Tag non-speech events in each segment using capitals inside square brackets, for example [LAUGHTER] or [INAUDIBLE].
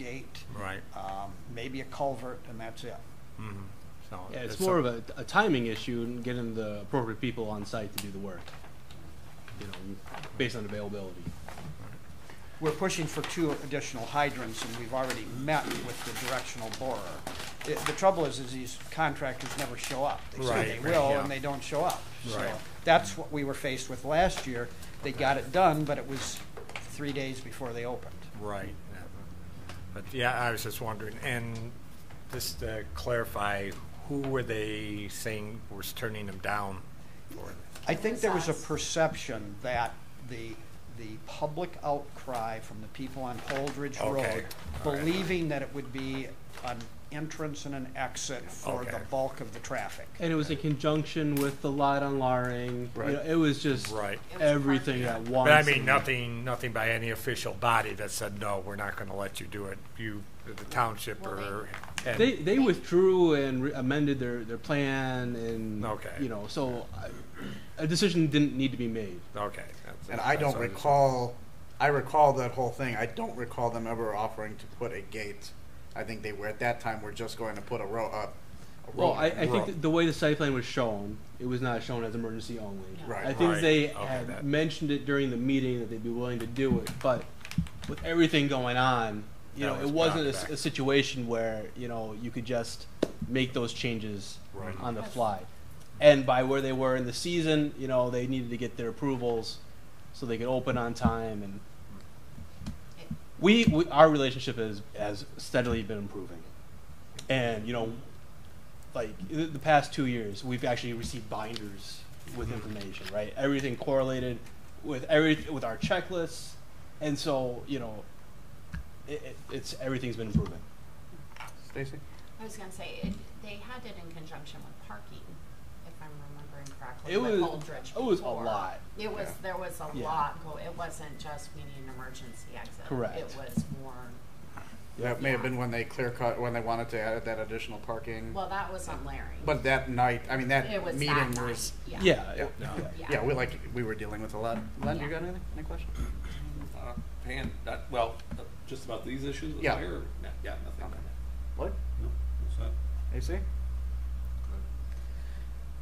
gate, Right. um, maybe a culvert, and that's it. Mhm. So Yeah, it's a- more of a, a timing issue and getting the appropriate people on site to do the work. You know, based on availability. We're pushing for two additional hydrants, and we've already met with the directional borer. The- The trouble is, is these contractors never show up. They Right, say right, they will, yeah. and they don't show up. So Right. That's what we were faced with last year. They got it done, but it was three days before they opened. Right. yeah. But yeah, I was just wondering, and just to clarify, who were they saying was turning them down for? I think there was a Size. perception that the, the public outcry from the people on Holdridge Okay. Road, All right. believing that it would be an entrance and an exit for the Okay. bulk of the traffic. And it was in conjunction with the light on Laring. You know, Right. it was just Right. It was everything perfect. at once. But I mean, and- nothing, nothing by any official body that said, no, we're not going to let you do it. You, the township or. and- They, they withdrew and re- amended their, their plan and, Okay. you know, so I- a decision didn't need to be made. Okay. that's- And I that's don't what was- recall, I recall that whole thing. I don't recall them ever offering to put a gate. I think they were, at that time, were just going to put a row up. Well, I, I Road. think that the way the site plan was shown, it was not shown as emergency only. Right. I think Right. they Okay, had that- mentioned it during the meeting that they'd be willing to do it, but with everything going on, you That know, was it wasn't a, back. s- a situation where you know you could just make those changes Right. on the fly. And by where they were in the season, you know, they needed to get their approvals so they could open on time. And we, we our relationship has has steadily been improving, and you know, like i- the past two years, we've actually received binders with information, right? Everything correlated with every with our checklists, and so you know, it, it, it's everything's been improving. Stacy? I was gonna say, it, they had it in conjunction with parking, if I'm remembering correctly. It with was- Holdridge it was a before. lot. It was, Yeah. there was a Yeah. lot, go- it wasn't just we need an emergency exit. Correct. It was more, That may have been when they clear cut, when they wanted to add that additional parking. well, that was on Larry. But that night, I mean, that It was that meeting night, was, yeah. Yeah, it- Yeah. yeah. Yeah. yeah, we like, we were dealing with a lot. Len, you Yeah. got anything, any question? Uh, Pan, not, well, uh, just about these issues with Yeah. fire? or- no, Yeah, nothing. Okay. Lloyd? No, what's that? AC?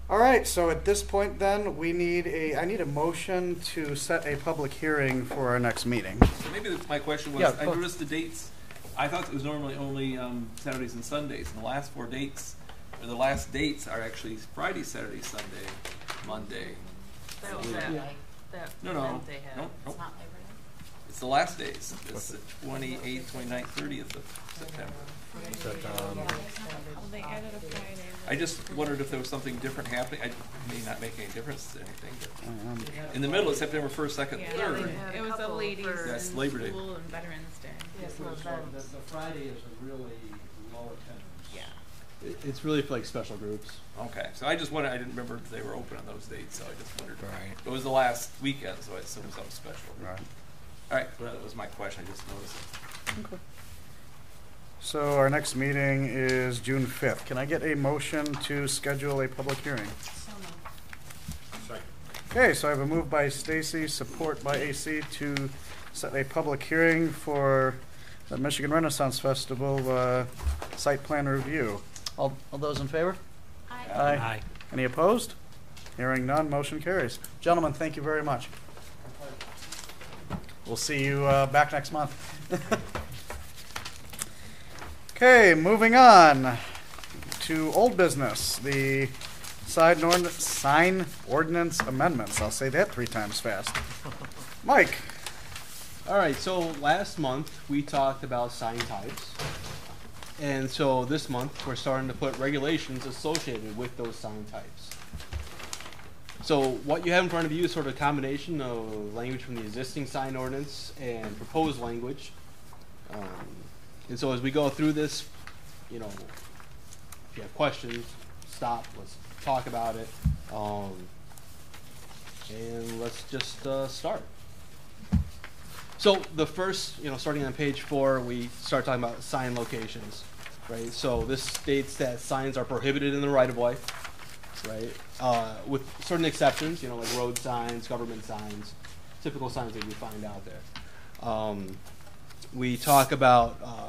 All right, so at this point then, we need a, I need a motion to set a public hearing for our next meeting. So Maybe that's my question was, Yeah, of I course. noticed the dates, I thought it was normally only um, Saturdays and Sundays, and the last four dates, or the last dates are actually Friday, Saturday, Sunday, Monday. That was Yeah. that, Yeah. like, No, no, no, it's no, not Labor Day. it's the last days, it's the twenty-eighth, twenty-ninth, thirtieth of September. um, Um, Well, they added a Friday. I just wondered if there was something different happening, I it may not make any difference to anything, but Um, in the middle of September first, second, Yeah, third. they had Yeah. it was the Couple ladies for- and Yes, Labor Day. school and Veterans Day. Yes, The November. Friday is a really low attendance. Yeah. It- it's really for like special groups. Okay, so I just wondered, I didn't remember if they were open on those dates, so I just wondered. Right. It was the last weekend, so I assumed something special. Right. All right, well, that was my question, I just noticed. it. So our next meeting is June fifth. Can I get a motion to schedule a public hearing? So moved. Okay, so I have a move by Stacy, support by AC to set a public hearing for the Michigan Renaissance Festival, uh, site plan review. All, all those in favor? I- Aye. Any opposed? Hearing none, motion carries. Gentlemen, thank you very much. We'll see you uh, back next month. [LAUGHS] Okay, moving on to old business, the side norn- sign ordinance amendments. I'll say that three times fast. Mike? All right, so last month we talked about sign types. And so this month we're starting to put regulations associated with those sign types. So what you have in front of you is sort of a combination of language from the existing sign ordinance and proposed language. Um, and so as we go through this, you know, if you have questions, stop, let's talk about it. Um, and let's just uh, start. So the first, you know, starting on page four, we start talking about sign locations, right? So this states that signs are prohibited in the right of way, right? Uh, with certain exceptions, you know, like road signs, government signs, typical signs that you find out there. Um, we talk about uh,